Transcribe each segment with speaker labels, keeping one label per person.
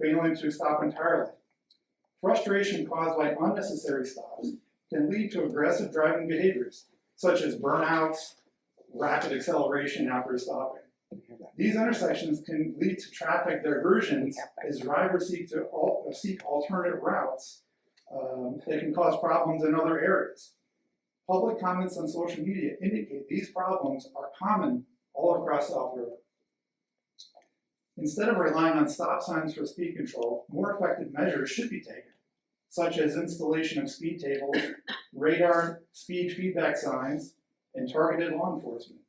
Speaker 1: failing to stop entirely. Frustration caused by unnecessary stops can lead to aggressive driving behaviors, such as burnouts, rapid acceleration after stopping. These intersections can lead to traffic diversions as drivers seek to al- uh, seek alternative routes. Um, they can cause problems in other areas. Public comments on social media indicate these problems are common all across South River. Instead of relying on stop signs for speed control, more effective measures should be taken, such as installation of speed tables, radar, speed feedback signs, and targeted law enforcement.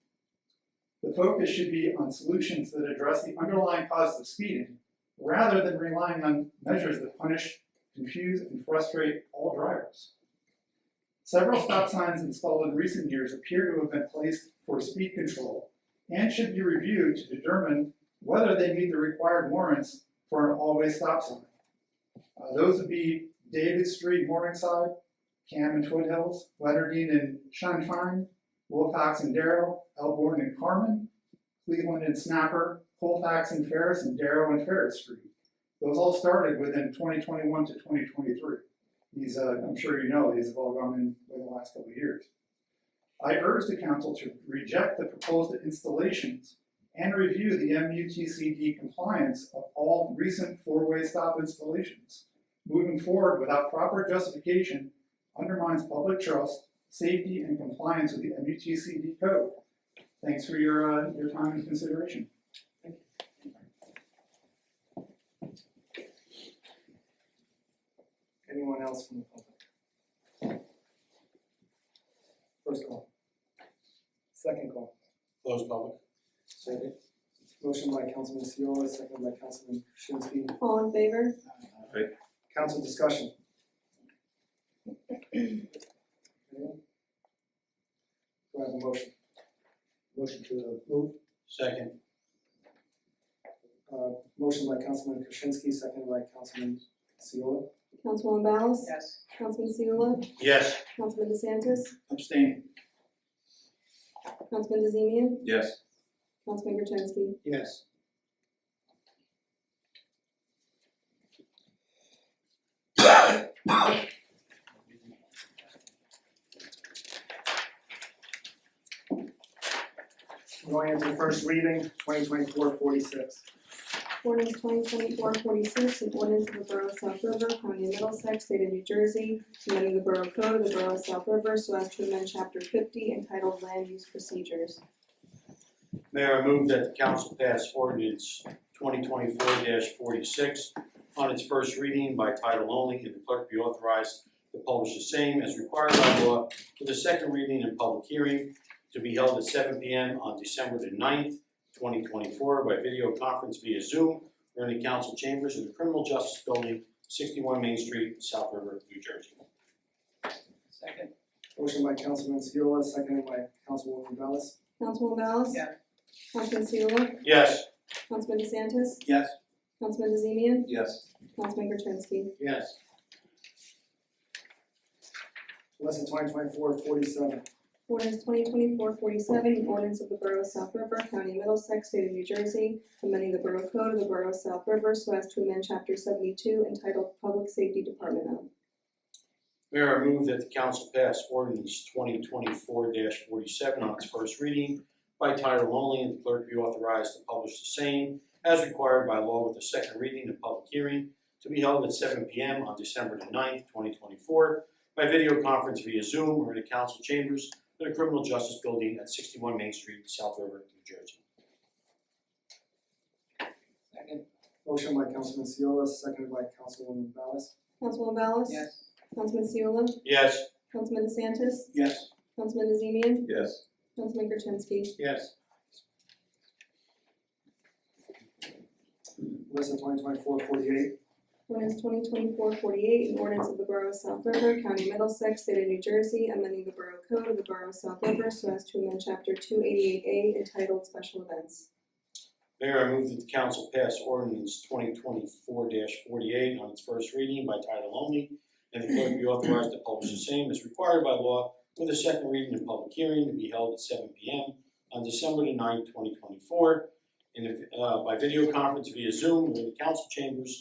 Speaker 1: The focus should be on solutions that address the underlying cause of speeding, rather than relying on measures that punish, confuse, and frustrate all drivers. Several stop signs installed in recent years appear to have been placed for speed control and should be reviewed to determine whether they meet the required warrants for an always stop sign. Uh, those would be David Street, Morningside, Cam and Foothills, Leonardine and Shunfine, Wilcox and Darrow, Elborn and Carmen, Cleveland and Snapper, Colfax and Ferris, and Darrow and Ferris Street. Those all started within 2021 to 2023. These, uh, I'm sure you know, these have all gone in in the last couple of years. I urge the council to reject the proposed installations and review the MUTCD compliance of all recent four-way stop installations. Moving forward without proper justification undermines public trust, safety, and compliance with the MUTCD code. Thanks for your, uh, your time and consideration.
Speaker 2: Anyone else from the public? First call. Second call.
Speaker 3: Close public.
Speaker 2: Second. Motion by Councilman Seola, second by Councilman Krasinski.
Speaker 4: All in favor?
Speaker 2: Council discussion. Anyone? Do I have a motion? Motion to move.
Speaker 3: Second.
Speaker 2: Uh, motion by Councilman Krasinski, second by Councilman Seola.
Speaker 4: Councilwoman Ballas?
Speaker 5: Yes.
Speaker 4: Councilman Seula?
Speaker 3: Yes.
Speaker 4: Councilman DeSantis?
Speaker 3: Abstain.
Speaker 4: Councilman DeZemian?
Speaker 3: Yes.
Speaker 4: Councilman Gertenski?
Speaker 3: Yes.
Speaker 2: We're Going into first reading, 46.
Speaker 4: Ordinance twenty twenty-four forty-six, an ordinance of the Borough of South River, County of Middlesex, State of New Jersey, amending the Borough Code of the Borough of South River so as to amend chapter fifty entitled Land Use Procedures.
Speaker 3: Mayor, I move that the council pass ordinance twenty twenty-four forty-six on its first reading by title only, and the clerk be authorized to publish the same as required by law for the second reading and public hearing to be held at seven P M on December the 9th, twenty twenty-four by video conference via Zoom or in the council chambers of the Criminal Justice Building, sixty-one Main Street, South River, New Jersey.
Speaker 5: Second.
Speaker 2: Motion by Councilman Seola, seconded by Councilwoman Ballas.
Speaker 4: Councilwoman Ballas?
Speaker 5: Yes.
Speaker 4: Councilman Seula?
Speaker 3: Yes.
Speaker 4: Councilman DeSantis?
Speaker 3: Yes.
Speaker 4: Councilman DeZemian?
Speaker 3: Yes.
Speaker 4: Councilman Gertenski?
Speaker 3: Yes.
Speaker 2: Lesson 2024 47.
Speaker 4: Ordinance 2024-47, an ordinance of the Borough of South River, County of Middlesex, State of New Jersey, amending the Borough Code of the Borough of South River so as to amend Chapter 72 entitled Public Safety Department of.
Speaker 3: Mayor, I move that the council pass ordinance twenty twenty-four forty-seven on its first reading by title only, and the clerk be authorized to publish the same as required by law with the second reading and public hearing to be held at seven P M on December the 9th, twenty twenty-four by video conference via Zoom or in the council chambers of the Criminal Justice Building at sixty-one Main Street, South River, New Jersey.
Speaker 5: Second.
Speaker 2: Motion by Councilman Seola, seconded by Councilwoman Ballas.
Speaker 4: Councilwoman Ballas?
Speaker 5: Yes.
Speaker 4: Councilman Seula?
Speaker 3: Yes.
Speaker 4: Councilman DeSantis?
Speaker 3: Yes.
Speaker 4: Councilman DeZemian?
Speaker 3: Yes.
Speaker 4: Councilman Gertenski?
Speaker 3: Yes.
Speaker 2: Lesson 2024 48.
Speaker 4: Ordinance 2024-48, an ordinance of the Borough of South River, County of Middlesex, State of New Jersey, amending the Borough Code of the Borough of South River so as to amend Chapter 288A entitled Special Events.
Speaker 3: Mayor, I move that the council pass ordinance twenty twenty-four forty-eight on its first reading by title only, and the clerk be authorized to publish the same as required by law with a second reading and public hearing to be held at seven P M on December the ninth, twenty twenty-four, and if, uh, by video conference via Zoom or in the council chambers